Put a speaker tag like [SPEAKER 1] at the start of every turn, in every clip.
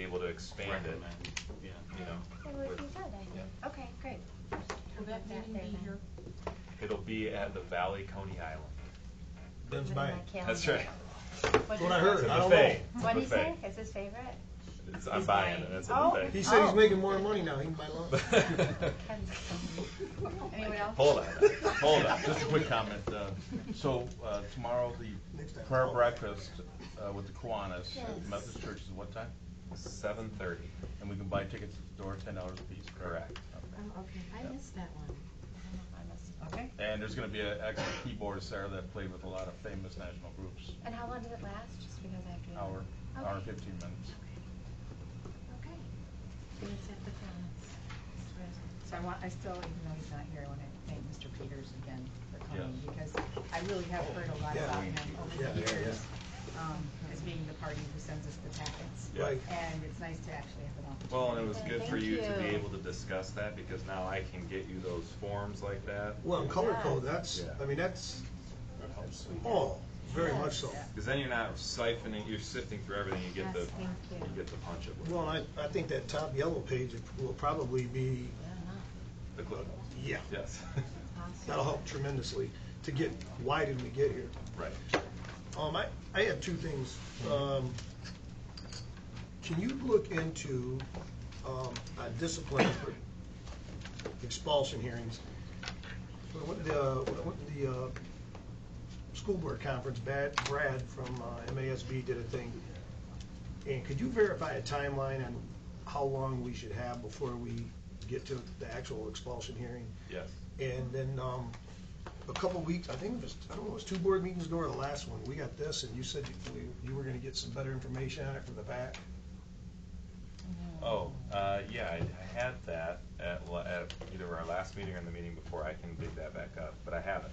[SPEAKER 1] able to expand it,
[SPEAKER 2] recommend, yeah.
[SPEAKER 1] you know.
[SPEAKER 3] It would be good, I think. Okay, great.
[SPEAKER 4] Will that meeting be here?
[SPEAKER 1] It'll be at the Valley Coney Island.
[SPEAKER 3] Put it in
[SPEAKER 5] Ben's Bay.
[SPEAKER 3] my calendar.
[SPEAKER 1] That's right.
[SPEAKER 5] That's what I heard,
[SPEAKER 1] It's
[SPEAKER 5] I
[SPEAKER 1] a
[SPEAKER 5] don't
[SPEAKER 1] buffet.
[SPEAKER 5] know.
[SPEAKER 1] It's a
[SPEAKER 3] What'd he say?
[SPEAKER 1] buffet.
[SPEAKER 3] It's his favorite?
[SPEAKER 1] It's- I'm buying it, that's a
[SPEAKER 3] Oh.
[SPEAKER 1] buffet.
[SPEAKER 5] He said he's
[SPEAKER 3] Oh.
[SPEAKER 5] making more money now, he can buy lunch.
[SPEAKER 3] Anyone else?
[SPEAKER 1] Hold on,
[SPEAKER 2] Hold on, just a quick comment. uh, So uh, tomorrow, the
[SPEAKER 5] Next time.
[SPEAKER 2] prayer breakfast uh, with the Kiwanis at
[SPEAKER 3] Yes.
[SPEAKER 2] the Methodist Church is what time?
[SPEAKER 1] seven thirty,
[SPEAKER 2] And we can buy tickets at the door, ten dollars a piece, correct?
[SPEAKER 1] correct.
[SPEAKER 4] Oh, okay. I missed that one.
[SPEAKER 3] Okay.
[SPEAKER 2] And there's gonna be an excellent keyboardist there that played with a lot of famous national groups.
[SPEAKER 3] And how long did it last? Just because I have to.
[SPEAKER 2] Hour, hour and
[SPEAKER 3] Okay.
[SPEAKER 2] fifteen minutes.
[SPEAKER 3] Okay.
[SPEAKER 4] And it's at the Florence.
[SPEAKER 6] So I want, I still, even though he's not here, I want to thank Mr. Peters again for coming,
[SPEAKER 2] Yes.
[SPEAKER 6] because I really have heard a lot
[SPEAKER 5] Yeah.
[SPEAKER 6] about him
[SPEAKER 5] Yeah,
[SPEAKER 6] over the
[SPEAKER 5] yeah,
[SPEAKER 6] years, um, as being the party who sends us the packets.
[SPEAKER 1] Yeah.
[SPEAKER 5] Right.
[SPEAKER 6] And it's nice to actually have an opportunity.
[SPEAKER 1] Well, and it was good for
[SPEAKER 3] Thank
[SPEAKER 1] you to be
[SPEAKER 3] you.
[SPEAKER 1] able to discuss that, because now I can get you those forms like that.
[SPEAKER 5] Well, and color code, that's,
[SPEAKER 1] Yeah.
[SPEAKER 5] I mean, that's, oh, very much so.
[SPEAKER 1] Because then you're not siphoning, you're sifting through everything, you get the,
[SPEAKER 4] Yes, thank you.
[SPEAKER 1] you get the punch of it.
[SPEAKER 5] Well, I, I think that top yellow page will probably be,
[SPEAKER 1] The clip notes.
[SPEAKER 5] yeah,
[SPEAKER 1] Yes,
[SPEAKER 5] that'll help tremendously to get, why did we get here?
[SPEAKER 1] right.
[SPEAKER 5] Um, I, I have two things. Um, can you look into, um, uh, discipline for expulsion hearings? What- What, the, uh, what, the, uh, school board conference, Brad, Brad from uh, MASB did a thing. And could you verify a timeline on how long we should have before we get to the actual expulsion hearing?
[SPEAKER 1] Yes.
[SPEAKER 5] And then, um, a couple weeks, I think it was, I don't know, it was two board meetings ago or the last one, we got this, and you said you, we- you were gonna get some better information on it from the back.
[SPEAKER 1] Oh, uh, yeah, I I had that at, la- at either our last meeting or the meeting before. I can dig that back up, but I have it,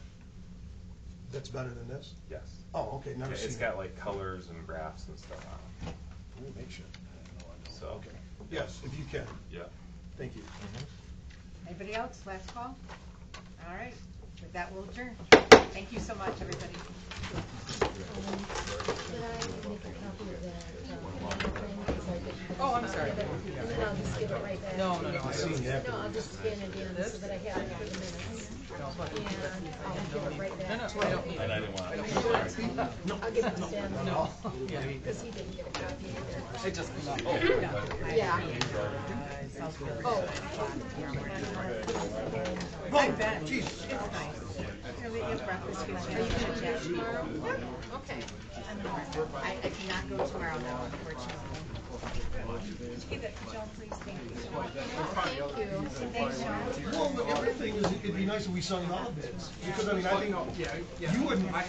[SPEAKER 5] That's better than this?
[SPEAKER 1] yes.
[SPEAKER 5] Oh, okay,
[SPEAKER 1] Yeah,
[SPEAKER 5] never seen it.
[SPEAKER 1] It's got like colors and graphs and stuff on
[SPEAKER 5] Ooh, make sure.
[SPEAKER 1] it, so,
[SPEAKER 5] Okay, yes, if you can,
[SPEAKER 1] yeah.
[SPEAKER 5] thank you.
[SPEAKER 6] Anybody else? Last call? All right, with that, we'll adjourn. Thank you so much, everybody.
[SPEAKER 4] Did I make a copy of that?
[SPEAKER 6] Oh, I'm sorry.
[SPEAKER 4] And then I'll just give it right back. No, no, no.
[SPEAKER 5] I've seen it.
[SPEAKER 4] No, I'll just scan it in so that I have it on the minutes. And I'll give it right back. No, no, I don't need
[SPEAKER 2] And I didn't want, to-
[SPEAKER 4] I'll give it to Sam. No. Because he didn't get a copy either. Yeah. Oh.
[SPEAKER 6] I bet. It's nice. Here, we get breakfast.
[SPEAKER 4] Are you gonna be here tomorrow? Okay.
[SPEAKER 6] I, I cannot go tomorrow, no, unfortunately. Hey, that- Joan, please, thank you.
[SPEAKER 4] Thank you.
[SPEAKER 6] Thanks, Joan.
[SPEAKER 5] Well, the other thing is, it'd be nice if we sung all of this, because I mean, I think, you wouldn't,